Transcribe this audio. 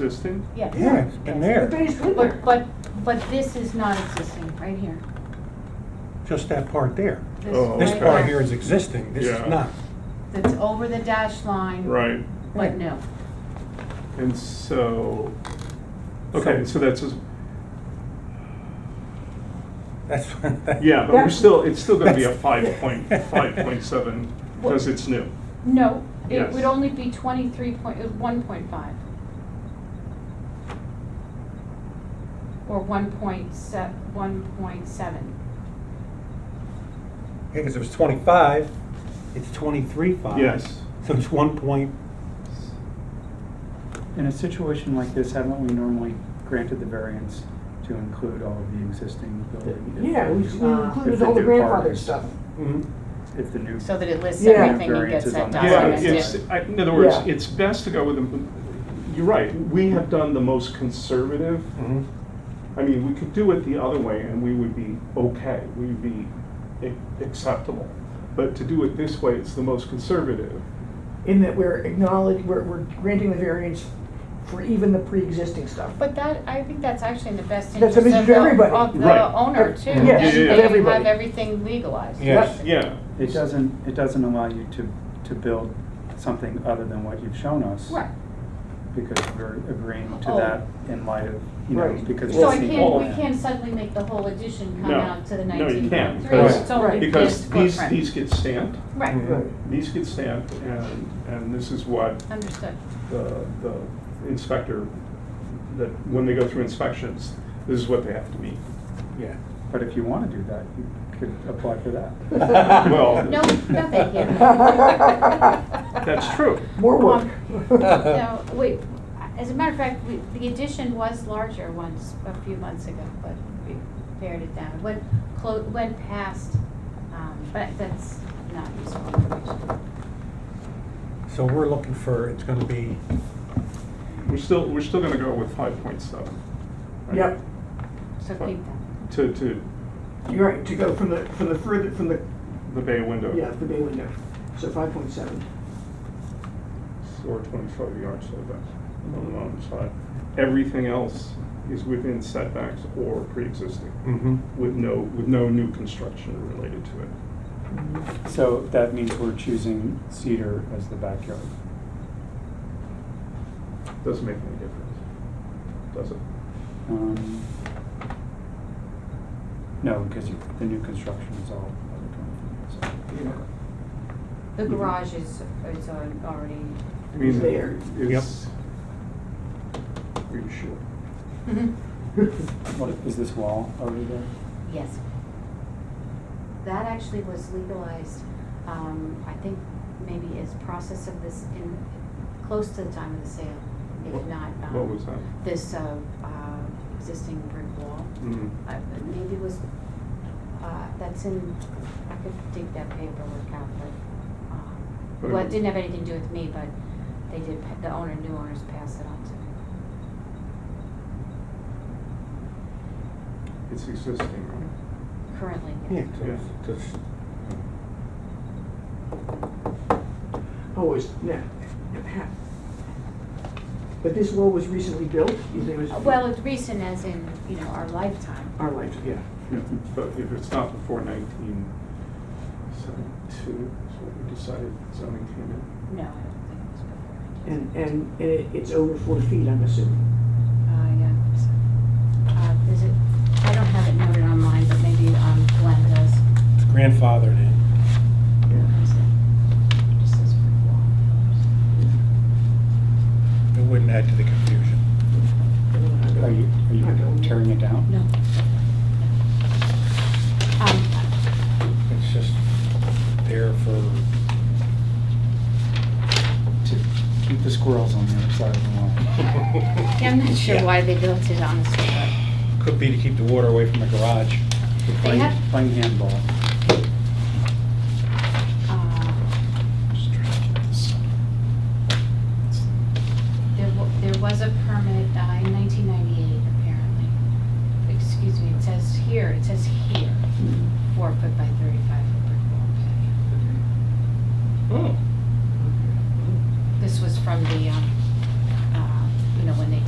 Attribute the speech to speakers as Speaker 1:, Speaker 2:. Speaker 1: existing?
Speaker 2: Yeah.
Speaker 3: Yeah, it's been there.
Speaker 4: But it's been there.
Speaker 2: But, but, but this is not existing, right here.
Speaker 3: just that part there.
Speaker 2: This
Speaker 1: Oh,
Speaker 3: This
Speaker 2: right
Speaker 1: okay.
Speaker 3: part
Speaker 2: here.
Speaker 3: here is existing, this
Speaker 1: Yeah.
Speaker 3: is not.
Speaker 2: That's over the dash line.
Speaker 1: Right,
Speaker 2: But no,
Speaker 1: and so, okay, so
Speaker 3: So-
Speaker 1: that's, a-
Speaker 3: That's,
Speaker 1: yeah, but we're
Speaker 4: That's-
Speaker 1: still, it's still gonna be a
Speaker 3: that's-
Speaker 1: five point, five point seven, because it's new.
Speaker 2: no, it
Speaker 1: Yes.
Speaker 2: would only be twenty-three point, uh, one point five. Or one point se- one point seven.
Speaker 3: Because it was twenty-five, it's twenty-three five.
Speaker 1: Yes.
Speaker 3: So it's one point,
Speaker 5: In a situation like this, haven't we normally granted the variance to include all of the existing building? if-
Speaker 4: Yeah, we we
Speaker 2: Uh,
Speaker 4: included
Speaker 5: if the
Speaker 4: all the
Speaker 5: new
Speaker 4: grandfather
Speaker 5: partners-
Speaker 4: stuff.
Speaker 3: mm,
Speaker 5: If the new,
Speaker 2: So that it lists
Speaker 4: Yeah.
Speaker 2: everything and gets
Speaker 5: Variances
Speaker 2: that
Speaker 5: on the-
Speaker 1: Yeah,
Speaker 5: Document
Speaker 1: it's,
Speaker 2: documented.
Speaker 5: it.
Speaker 1: I- in other words,
Speaker 4: Yeah.
Speaker 1: it's best to go with, the- you're right, we have done the most conservative.
Speaker 3: mhm.
Speaker 1: I mean, we could do it the other way and we would be okay, we would be a- acceptable. But to do it this way, it's the most conservative.
Speaker 4: In that we're acknowledging, we're, we're granting the variance for even the pre-existing stuff.
Speaker 2: But that, I think that's actually in the best interest
Speaker 4: That's an
Speaker 2: of the,
Speaker 4: interest for everybody.
Speaker 2: of
Speaker 1: Right.
Speaker 2: the owner too.
Speaker 4: Yes,
Speaker 2: Then
Speaker 1: Yeah, yeah, yeah.
Speaker 2: they have
Speaker 4: everybody.
Speaker 2: everything legalized.
Speaker 3: Yes.
Speaker 1: Yeah,
Speaker 5: it doesn't, it doesn't allow you to, to build something other than what you've shown us.
Speaker 2: Right.
Speaker 5: Because we're agreeing to
Speaker 2: Oh.
Speaker 5: that in light of, you know,
Speaker 4: Right.
Speaker 5: because.
Speaker 2: So I
Speaker 5: it's the
Speaker 2: can't,
Speaker 5: old
Speaker 2: we
Speaker 5: man.
Speaker 2: can't suddenly make the whole addition come
Speaker 1: No.
Speaker 2: out to the
Speaker 1: No, you
Speaker 2: nineteen
Speaker 1: can't,
Speaker 2: point three,
Speaker 1: because-
Speaker 2: it's only
Speaker 4: Right.
Speaker 2: this
Speaker 1: because these,
Speaker 2: footprint.
Speaker 1: these get stamped,
Speaker 3: mm-hmm.
Speaker 2: Right,
Speaker 4: Right.
Speaker 1: these get stamped, and, and this is what
Speaker 2: understood.
Speaker 1: the, the inspector, that when they go through inspections, this is what they have to meet.
Speaker 3: yeah.
Speaker 5: But if you wanna do that, you could apply for that.
Speaker 1: Well-
Speaker 2: No, no, thank you.
Speaker 1: That's true.
Speaker 4: More work.
Speaker 2: Um, No, wait, as a matter of fact, we, the addition was larger once, a few months ago, but we pared it down. Went clo, went past, um, but that's not useful information.
Speaker 3: So we're looking for, it's gonna be,
Speaker 1: We're still, we're still gonna go with five point seven.
Speaker 4: Yep,
Speaker 2: So keep that.
Speaker 1: To, to
Speaker 4: you're right, to go from the, from the further, from the,
Speaker 1: the bay window.
Speaker 4: yeah, the bay window. So five point seven.
Speaker 1: Or twenty-five yards setback on the mountain side. Everything else is within setbacks or pre-existing,
Speaker 3: mhm.
Speaker 1: with no, with no new construction related to it.
Speaker 4: Mm-hmm.
Speaker 5: So that means we're choosing cedar as the backyard.
Speaker 1: Doesn't make any difference, does it?
Speaker 5: Um, No, because you- the new construction is all other kind of, so.
Speaker 2: The
Speaker 1: Mm-hmm.
Speaker 2: garage is, is al- already,
Speaker 1: I mean,
Speaker 4: There.
Speaker 1: it's. Are you sure?
Speaker 5: What, is this wall already there?
Speaker 2: Yes. That actually was legalized, um, I think maybe as process of this in, close to the time of the sale, if
Speaker 1: What-
Speaker 2: not, um.
Speaker 1: What was that?
Speaker 2: This, uh, uh, existing brick wall,
Speaker 1: Mm.
Speaker 2: uh, maybe was, uh, that's in, I could dig that paperwork out, but, um,
Speaker 1: But it
Speaker 2: well, it
Speaker 1: was-
Speaker 2: didn't have anything to do with me, but they did, pa- the owner, new owners passed it on to me.
Speaker 1: It's existing, right?
Speaker 2: Currently,
Speaker 3: Yeah,
Speaker 2: yes.
Speaker 3: so it's- it's-
Speaker 4: Oh, it's, yeah. But this wall was recently built, you think it was?
Speaker 2: Uh, Well, it's recent as in, you know, our lifetime.
Speaker 4: Our life, yeah.
Speaker 1: Yeah, But if it's not before nineteen seventy-two, is what we decided zoning came in.
Speaker 2: No, I don't think it was before I came.
Speaker 4: And, and, and it- it's over four feet, I'm assuming.
Speaker 2: Uh, yeah. so, Uh, is it, I don't have it noted on mine, but maybe, um, Glenn does.
Speaker 3: It's grandfathered in.
Speaker 4: Yeah.
Speaker 2: Is it- just says brick wall.
Speaker 3: It wouldn't add to the confusion.
Speaker 5: Are you, are you tearing it down?
Speaker 2: No. Um,
Speaker 3: It's just there for,
Speaker 5: To keep the squirrels on the other side of the lawn.
Speaker 2: yeah, I'm not sure
Speaker 3: Yeah.
Speaker 2: why they built it, honestly,
Speaker 3: could be to keep the water away from the garage.
Speaker 2: but they
Speaker 5: Playing-
Speaker 2: have,
Speaker 5: Playing handball.
Speaker 2: uh,
Speaker 3: Just trying to keep this-
Speaker 2: There, wa- there was a permit uh, in 1998, apparently. Excuse me, it says here, it says here, four foot by 35 foot brick wall patio.
Speaker 1: Oh.
Speaker 3: Oh.
Speaker 2: This was from the, um, uh, you know, when they